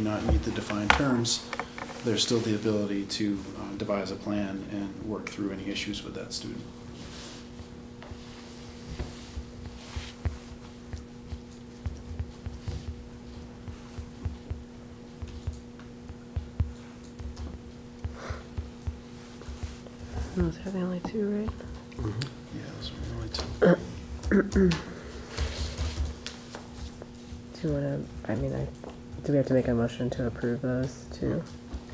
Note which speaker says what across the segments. Speaker 1: not meet the defined terms, there's still the ability to uh, devise a plan and work through any issues with that student.
Speaker 2: Those are Oh, the only two, right?
Speaker 1: Yeah, those are the only two.
Speaker 2: Do you want to, I mean, I, do we have to make a motion to approve those two?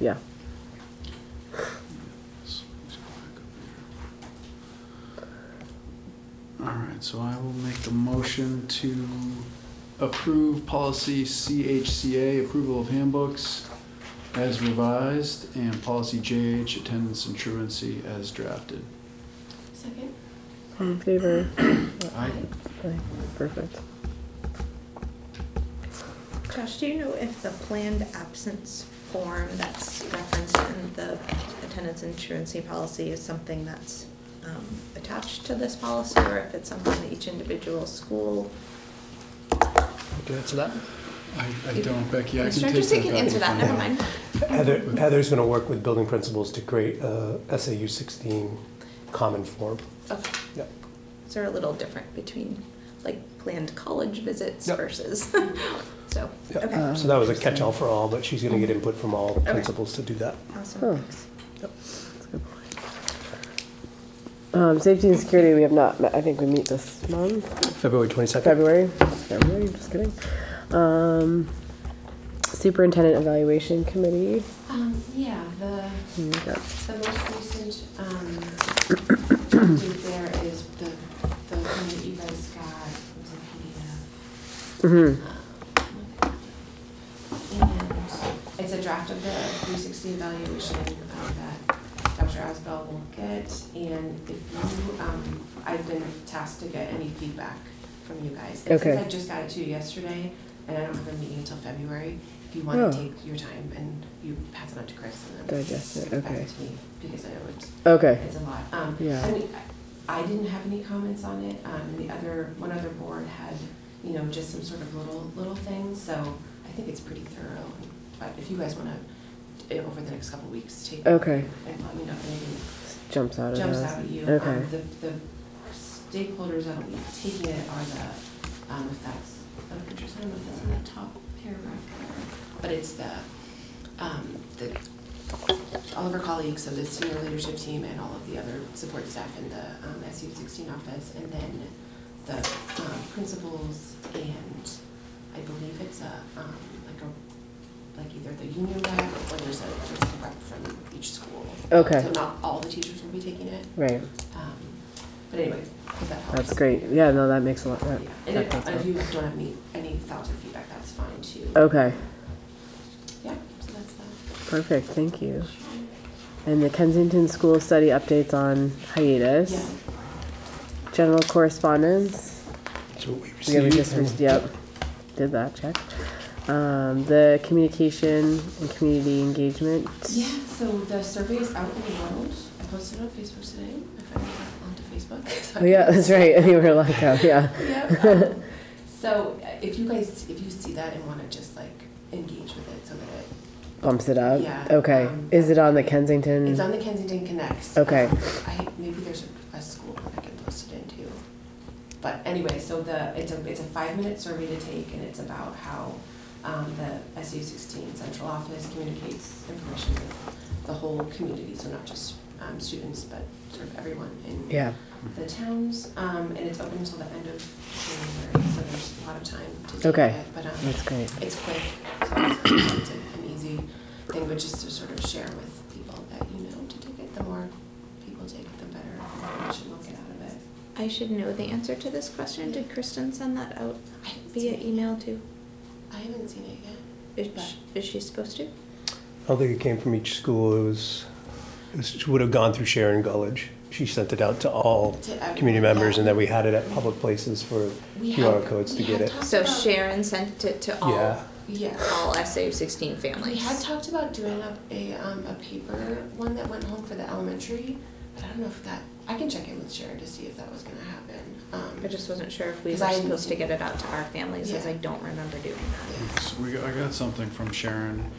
Speaker 2: Yeah.
Speaker 1: Yes, let's go back up here. All right, so I will make the motion to approve policy CHCA, approval of handbooks as revised, and policy JH, attendance and truancy as drafted.
Speaker 3: Second?
Speaker 2: All in favor?
Speaker 1: Aye.
Speaker 2: Aye. Perfect.
Speaker 4: Josh, do you know if the planned absence form that's referenced in the attendance insurance policy is something that's um, attached to this policy, or if it's something that each individual school?
Speaker 5: Do you answer that?
Speaker 1: I, I don't, Becky, I can take that.
Speaker 4: Instructors, they can
Speaker 1: back
Speaker 4: answer
Speaker 1: and
Speaker 4: that,
Speaker 1: forth.
Speaker 4: never mind.
Speaker 5: Heather, Heather's going to work with building principals to create a SAU 16 common form.
Speaker 4: Okay,
Speaker 5: Yep.
Speaker 4: so they're a little different between, like, planned college visits
Speaker 5: Yep.
Speaker 4: versus, so,
Speaker 5: Yep.
Speaker 4: okay,
Speaker 5: So that was a catch-all for all, but she's going to get input from all principals to do that.
Speaker 2: Huh.
Speaker 4: awesome, thanks.
Speaker 2: That's a good point. Um, safety and security, we have not, met I think we meet this month,
Speaker 5: February 22nd.
Speaker 2: February, February, just kidding. Um, superintendent evaluation committee,
Speaker 3: Um, yeah, the,
Speaker 2: Hmm, that's
Speaker 3: the most recent, um, update there is the, the one that you guys got, it was a
Speaker 2: mhm.
Speaker 3: PDF. um, And it's a draft of the three sixty evaluation uh, that Dr. Asbell will get. And if you, um, I've been tasked to get any feedback from you guys. And
Speaker 2: Okay.
Speaker 3: Since I just got it to you yesterday, and I don't have a meeting until February, if you wanna
Speaker 2: Oh.
Speaker 3: take your time and you pass it on to Chris and then
Speaker 2: Digest it,
Speaker 3: Back
Speaker 2: okay.
Speaker 3: to me, Because I know it's,
Speaker 2: Okay,
Speaker 3: it's a lot. Um,
Speaker 2: Yeah.
Speaker 3: I mean, I I didn't have any comments on it. Um, the other, one other board had, you know, just some sort of little, little things, so I think it's pretty thorough. But if you guys wanna, eh, over the next couple of weeks, take.
Speaker 2: okay,
Speaker 3: And let me know if anything
Speaker 2: jumps out of
Speaker 3: jumps
Speaker 2: those.
Speaker 3: out at you. Um,
Speaker 2: Okay,
Speaker 3: The, the stakeholders that'll be taking it are the, um, if that's of interest, I don't know if that's in the top paragraph. But it's the, um, the, all of our colleagues, so the senior leadership team and all of the other support staff in the, um, SU sixteen office. And then the, um, principals and I believe it's a, um, like a, like either the union rep or there's a, there's a rep from each school. So
Speaker 2: okay,
Speaker 3: not all the teachers will be taking it,
Speaker 2: right,
Speaker 3: um, but anyway, if that helps.
Speaker 2: that's great, yeah, no, that makes a lot, that,
Speaker 3: Yeah.
Speaker 2: that
Speaker 3: And
Speaker 2: Oh.
Speaker 3: if,
Speaker 2: does
Speaker 3: and
Speaker 2: help.
Speaker 3: if you don't have any, any thoughts or feedback, that's fine too.
Speaker 2: Okay,
Speaker 3: Yeah, so that's that.
Speaker 2: perfect, thank you. And the Kensington School Study updates on hiatus.
Speaker 3: Yeah,
Speaker 2: General correspondence.
Speaker 5: So we
Speaker 2: Yeah, we
Speaker 5: received.
Speaker 2: just, re- yep, did that, check. Um, the communication and community engagement.
Speaker 3: yeah, so the survey is out in the world. I posted it on Facebook today. I finally got onto Facebook. so I
Speaker 2: Oh, yeah,
Speaker 3: can-
Speaker 2: that's right, you were like, oh, yeah.
Speaker 3: Yep. um, So uh, if you guys, if you see that and wanna just like engage with it so that it
Speaker 2: Bumps it up.
Speaker 3: Yeah,
Speaker 2: Okay,
Speaker 3: um,
Speaker 2: is it on the Kensington?
Speaker 3: It's on the Kensington Connects.
Speaker 2: Mm. Okay.
Speaker 3: Um, I, maybe there's a, a school one I can post it into. But anyway, so the, it's a, it's a five-minute survey to take, and it's about how, um, the SU sixteen central office communicates information with the whole community, so not just, um, students, but sort of everyone in
Speaker 2: Yeah,
Speaker 3: the towns, um, and it's open until the end of January, so there's a lot of time to do it.
Speaker 2: Okay.
Speaker 3: But, um,
Speaker 2: that's great.
Speaker 3: it's quick, so it's, it's an an easy thing, but just to sort of share with people that you know to take it. The more people take it, the better information we'll get out of it.
Speaker 4: I should know the answer to this question, did Kristen send that out
Speaker 3: I haven't
Speaker 4: via
Speaker 3: seen it.
Speaker 4: email too?
Speaker 3: I haven't seen it yet.
Speaker 4: Is, sh- is she supposed to?
Speaker 5: I don't think it came from each school. It was, it was- she would have gone through Sharon Gullidge. She sent it out to all
Speaker 3: To every-
Speaker 5: community members, and
Speaker 3: yeah.
Speaker 5: then we had it at public places for
Speaker 3: We
Speaker 5: QR
Speaker 3: had-
Speaker 5: codes to
Speaker 3: we
Speaker 5: get
Speaker 3: had
Speaker 5: it.
Speaker 3: talked
Speaker 4: So
Speaker 3: about-
Speaker 4: Sharon sent it to all,
Speaker 5: Yeah.
Speaker 3: Yeah.
Speaker 4: all SAU sixteen
Speaker 3: We
Speaker 4: families.
Speaker 3: had talked about doing up a, um, a paper one that went home for the elementary, but I don't know if that I can check in with Sharon to see if that was gonna happen. Um,
Speaker 4: I just wasn't sure if we
Speaker 3: 'Cause
Speaker 4: were
Speaker 3: I-
Speaker 4: supposed to get it out to our families, as
Speaker 3: Yeah.
Speaker 4: I don't remember doing that.
Speaker 1: So we, got- I got something from Sharon